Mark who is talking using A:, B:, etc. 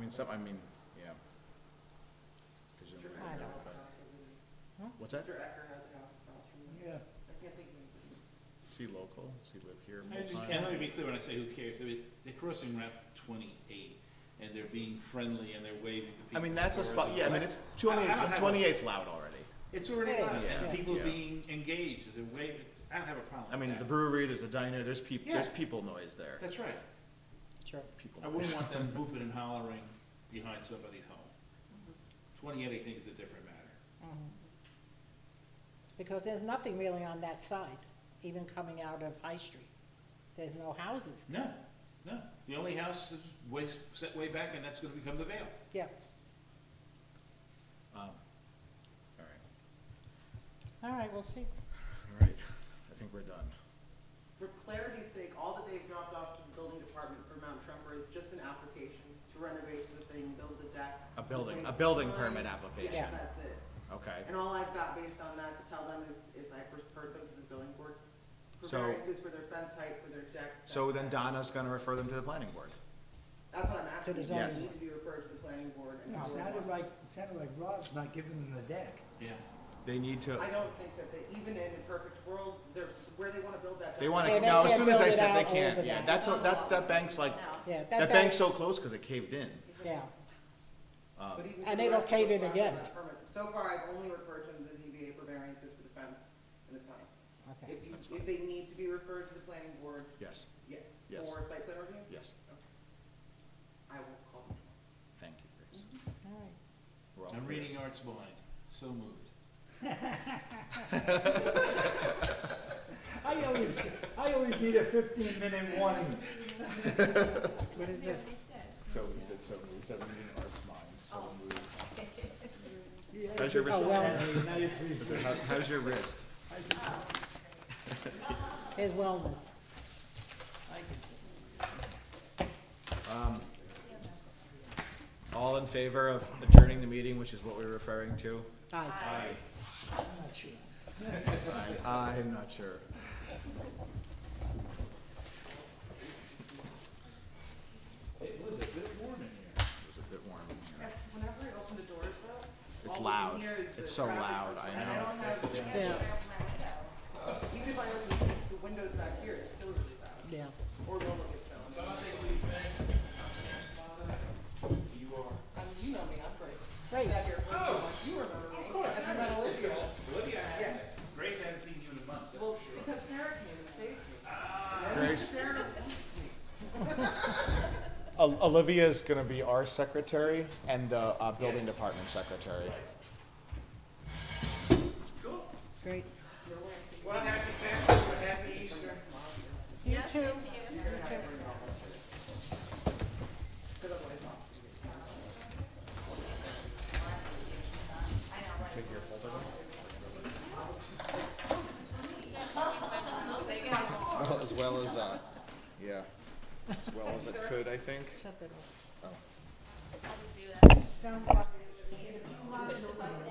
A: mean, some, I mean, yeah. 'Cause you-
B: Mr.
A: I know,
B: Ecker has a
A: but-
B: house across
A: What's
B: from
A: that?
B: you. Mr. Ecker has a house across from you.
C: Yeah,
B: I can't think of anything.
A: Is he local? Does he live here?
C: I just,
A: full-time?
C: and let me be clear when I say who cares, I mean, they're crossing Route twenty-eight, and they're being friendly, and they're waving to people.
A: I mean, that's a
C: doors
A: spot,
C: and
A: yeah, I mean,
C: lights.
A: it's,
C: I- I don't
A: 28's
C: have a-
A: 28's loud already.
C: It's already loud,
A: Yeah.
C: and people
A: Yeah.
C: being engaged, they're waving, I don't have a problem
A: I mean,
C: with
A: the
C: that.
A: brewery, there's a diner, there's peop,
C: Yeah.
A: there's people noise there.
C: That's right,
D: Sure.
A: People
C: I
A: noise.
C: wouldn't want them booping and hollering behind somebody's home. Twenty-eight, I think, is a different matter.
D: Because there's nothing really on that side, even coming out of High Street. There's no houses. there.
C: No, no, the only house is way, set way back, and that's gonna become the Vale.
D: Yeah,
A: Um, All right,
D: all right, we'll see.
A: all right, I think we're done.
B: For clarity's sake, all that they've dropped off to the building department for Mount Trumper is just an application to renovate the thing, build the deck.
A: A building, a
B: replace the
A: building
B: sign.
A: permit
B: Yes,
A: application,
D: Yeah.
B: that's it.
A: okay.
B: And all I've got based on that to tell them is, is I referred them to the zoning board for
A: So-
B: variances for their fence height, for their deck.
A: So then
B: setbacks.
A: Donna's gonna refer them to the planning board.
B: That's what I'm asking.
D: the
B: Does
D: zoning
B: it
A: Yes.
B: Need to be referred to the planning board and.
E: It
B: how we're
E: sounded
B: going.
E: like, it sounded like Rob's not giving them the deck.
C: Yeah.
A: They need to,
B: I don't think that they, even in a perfect world, they're, where they wanna build that.
A: they wanna,
D: Yeah, they
A: no, as
D: can't
A: soon as I
D: build it
A: said they
D: out
A: can't,
D: over
A: yeah,
D: that.
A: that's, what- that, that bank's like,
D: Yeah,
A: that bank's so close, cause it caved in.
D: Yeah,
B: But even
D: And
B: for the
D: it'll
B: rest of
D: cave
B: the
D: in
B: flat
D: again.
B: lot permit, So far, I've only referred to the ZBA for variances for the fence and the sign.
D: okay.
B: If you, if they need to be referred to the planning board,
A: Yes,
B: yes,
A: Yes.
B: for site plan review,
A: yes,
B: I will call them.
A: thank you, Grace.
D: All right.
A: We're all
C: I'm
A: clear.
C: reading Art's mind, so moved.
E: I always, I always need a fifteen minute warning.
D: What is this?
A: So, we said so moved, so moved in Art's mind, so
F: Oh.
A: moved.
E: Yeah,
A: How's your wrist?
D: Oh, well,
E: Hey, now you're free.
A: Is it- how- How's your wrist?
D: his wellness.
A: All in favor of adjourning the meeting, which is what we're referring to?
D: Aye.
E: I'm not sure.
A: I, I'm not sure.
C: It was a bit warm in here.
A: It was a bit warm in here.
B: Whenever I open the doors though.
A: It's
B: all we can
A: loud.
B: hear is the
A: It's so
B: traffic
A: loud, I
B: control. And
A: know.
B: I don't have,
D: Yeah,
B: even if I open the windows back here, it's still really loud,
D: yeah.
B: or Lola gets loud.
C: You are.
B: Um, you know me, I'm great.
D: Grace.
B: Sat here for a few months. You remember me.
C: Oh! Of course,
B: And
C: I
B: met
C: know this
B: Olivia.
C: girl. Olivia, I
B: Yeah.
C: haven't, Grace, I haven't seen you in a month, that's
B: Well,
C: for sure.
B: because Sarah came and saved me.
A: Grace.
B: Sarah,
A: Olivia's gonna be our secretary and the, uh, building department secretary.
C: Cool.
D: Great.
C: Well, happy Passover, happy Easter.
D: You too.
A: As well as, uh, yeah, as well as it could, I think.
D: Shut that off.
A: Oh.
D: Don't.